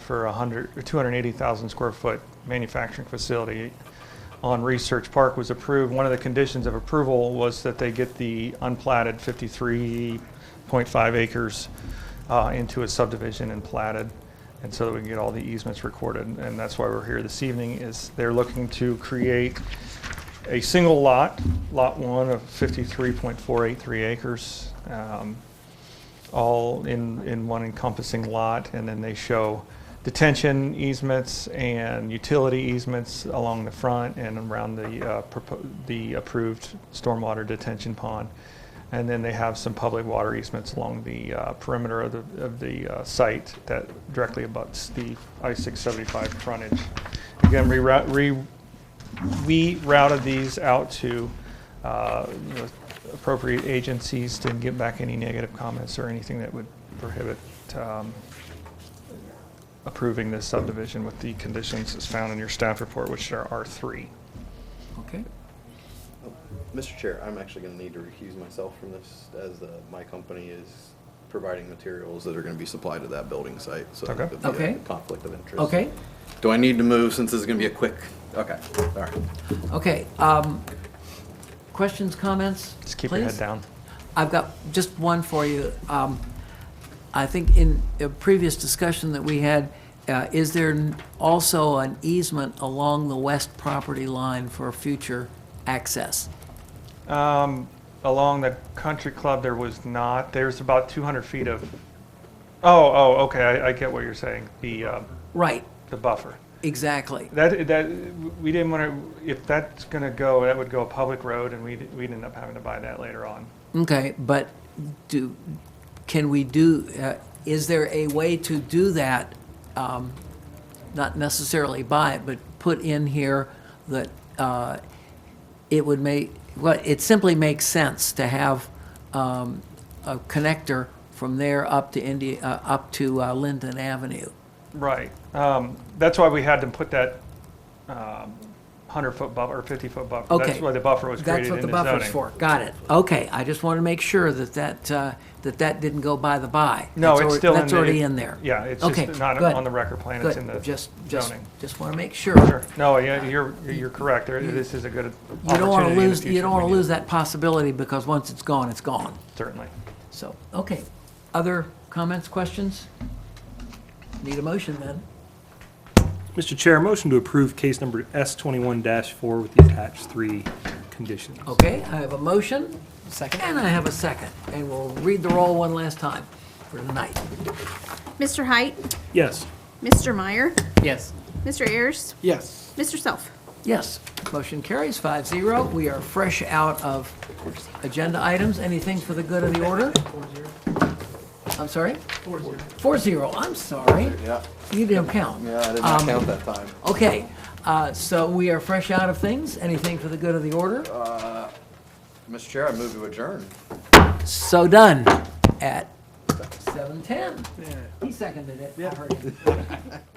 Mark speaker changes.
Speaker 1: for a hundred, or 280,000 square foot manufacturing facility on Research Park was approved. One of the conditions of approval was that they get the unplatted 53.5 acres uh, into a subdivision and platted, and so that we can get all the easements recorded. And that's why we're here this evening, is they're looking to create a single lot, Lot 1 of 53.483 acres, um, all in, in one encompassing lot, and then they show detention easements and utility easements along the front and around the, uh, propo- the approved stormwater detention pond. And then they have some public water easements along the uh, perimeter of the, of the uh, site that directly abuts the I-675 frontage. Again, reroute- re, we routed these out to uh, you know, appropriate agencies to get back any negative comments or anything that would prohibit um, approving this subdivision with the conditions as found in your staff report, which are R3.
Speaker 2: Okay.
Speaker 3: Mr. Chair, I'm actually going to need to recuse myself from this as uh, my company is providing materials that are going to be supplied to that building site. So
Speaker 1: Okay.
Speaker 3: it could be
Speaker 2: Okay.
Speaker 3: a conflict of interest.
Speaker 2: Okay,
Speaker 3: Do I need to move since this is going to be a quick? Okay, all right.
Speaker 2: okay. Um, questions, comments?
Speaker 1: Just keep your head
Speaker 2: please?
Speaker 1: down.
Speaker 2: I've got just one for you. Um, I think in a previous discussion that we had, uh, is there n- also an easement along the west property line for future access?
Speaker 1: Um, Along the country club, there was not, there's about 200 feet of, oh, oh, okay, I I get what you're saying, the, uh,
Speaker 2: Right,
Speaker 1: the buffer.
Speaker 2: exactly.
Speaker 1: That, that, we didn't want to, if that's going to go, that would go a public road, and we'd, we'd end up having to buy that later on.
Speaker 2: Okay, but do, can we do, uh, is there a way to do that? um, Not necessarily buy it, but put in here that uh, it would make, well, it simply makes sense to have um, a connector from there up to India, uh, up to uh, Linden Avenue.
Speaker 1: Right. Um, That's why we had to put that 100-foot buffer, or 50-foot buffer.
Speaker 2: Okay.
Speaker 1: That's why the buffer was
Speaker 2: That's
Speaker 1: created
Speaker 2: what
Speaker 1: in
Speaker 2: the
Speaker 1: the zoning.
Speaker 2: buffer's for. Got it. Okay, I just want to make sure that that, uh, that that didn't go by the by.
Speaker 1: No,
Speaker 2: That's
Speaker 1: it's
Speaker 2: alre-
Speaker 1: still in the...
Speaker 2: That's already in there.
Speaker 1: Yeah, it's
Speaker 2: Okay,
Speaker 1: just not
Speaker 2: good.
Speaker 1: on the record plan, it's in the
Speaker 2: Good, just, just,
Speaker 1: zoning.
Speaker 2: just want to make sure.
Speaker 1: Sure. No, yeah, you're, you're correct. There- This is a good opportunity
Speaker 2: You don't want to
Speaker 1: in the
Speaker 2: lose, you
Speaker 1: future
Speaker 2: don't
Speaker 1: if
Speaker 2: want
Speaker 1: we
Speaker 2: to
Speaker 1: do.
Speaker 2: lose that possibility, because once it's gone, it's gone.
Speaker 1: Certainly.
Speaker 2: So, okay. Other comments, questions? Need a motion then?
Speaker 4: Mr. Chair, motion to approve case number S21-4 with the attached three conditions.
Speaker 2: Okay, I have a motion. Second. And I have a second, and we'll read the roll one last time for tonight.
Speaker 5: Mr. Height,
Speaker 4: Yes.
Speaker 5: Mr. Meyer,
Speaker 2: Yes.
Speaker 5: Mr. Ayers,
Speaker 4: Yes.
Speaker 5: Mr. Self.
Speaker 2: Yes, motion carries five zero. We are fresh out of agenda items. Anything for the good of the order? I'm sorry? Four zero. Four zero, I'm sorry.
Speaker 3: Yeah,
Speaker 2: You didn't count.
Speaker 3: yeah, I did not
Speaker 2: Um,
Speaker 3: count that time.
Speaker 2: Okay, uh, so we are fresh out of things. Anything for the good of the order?
Speaker 3: Mr. Chair, I move to adjourn.
Speaker 2: So done at seven ten. He seconded it. I heard him.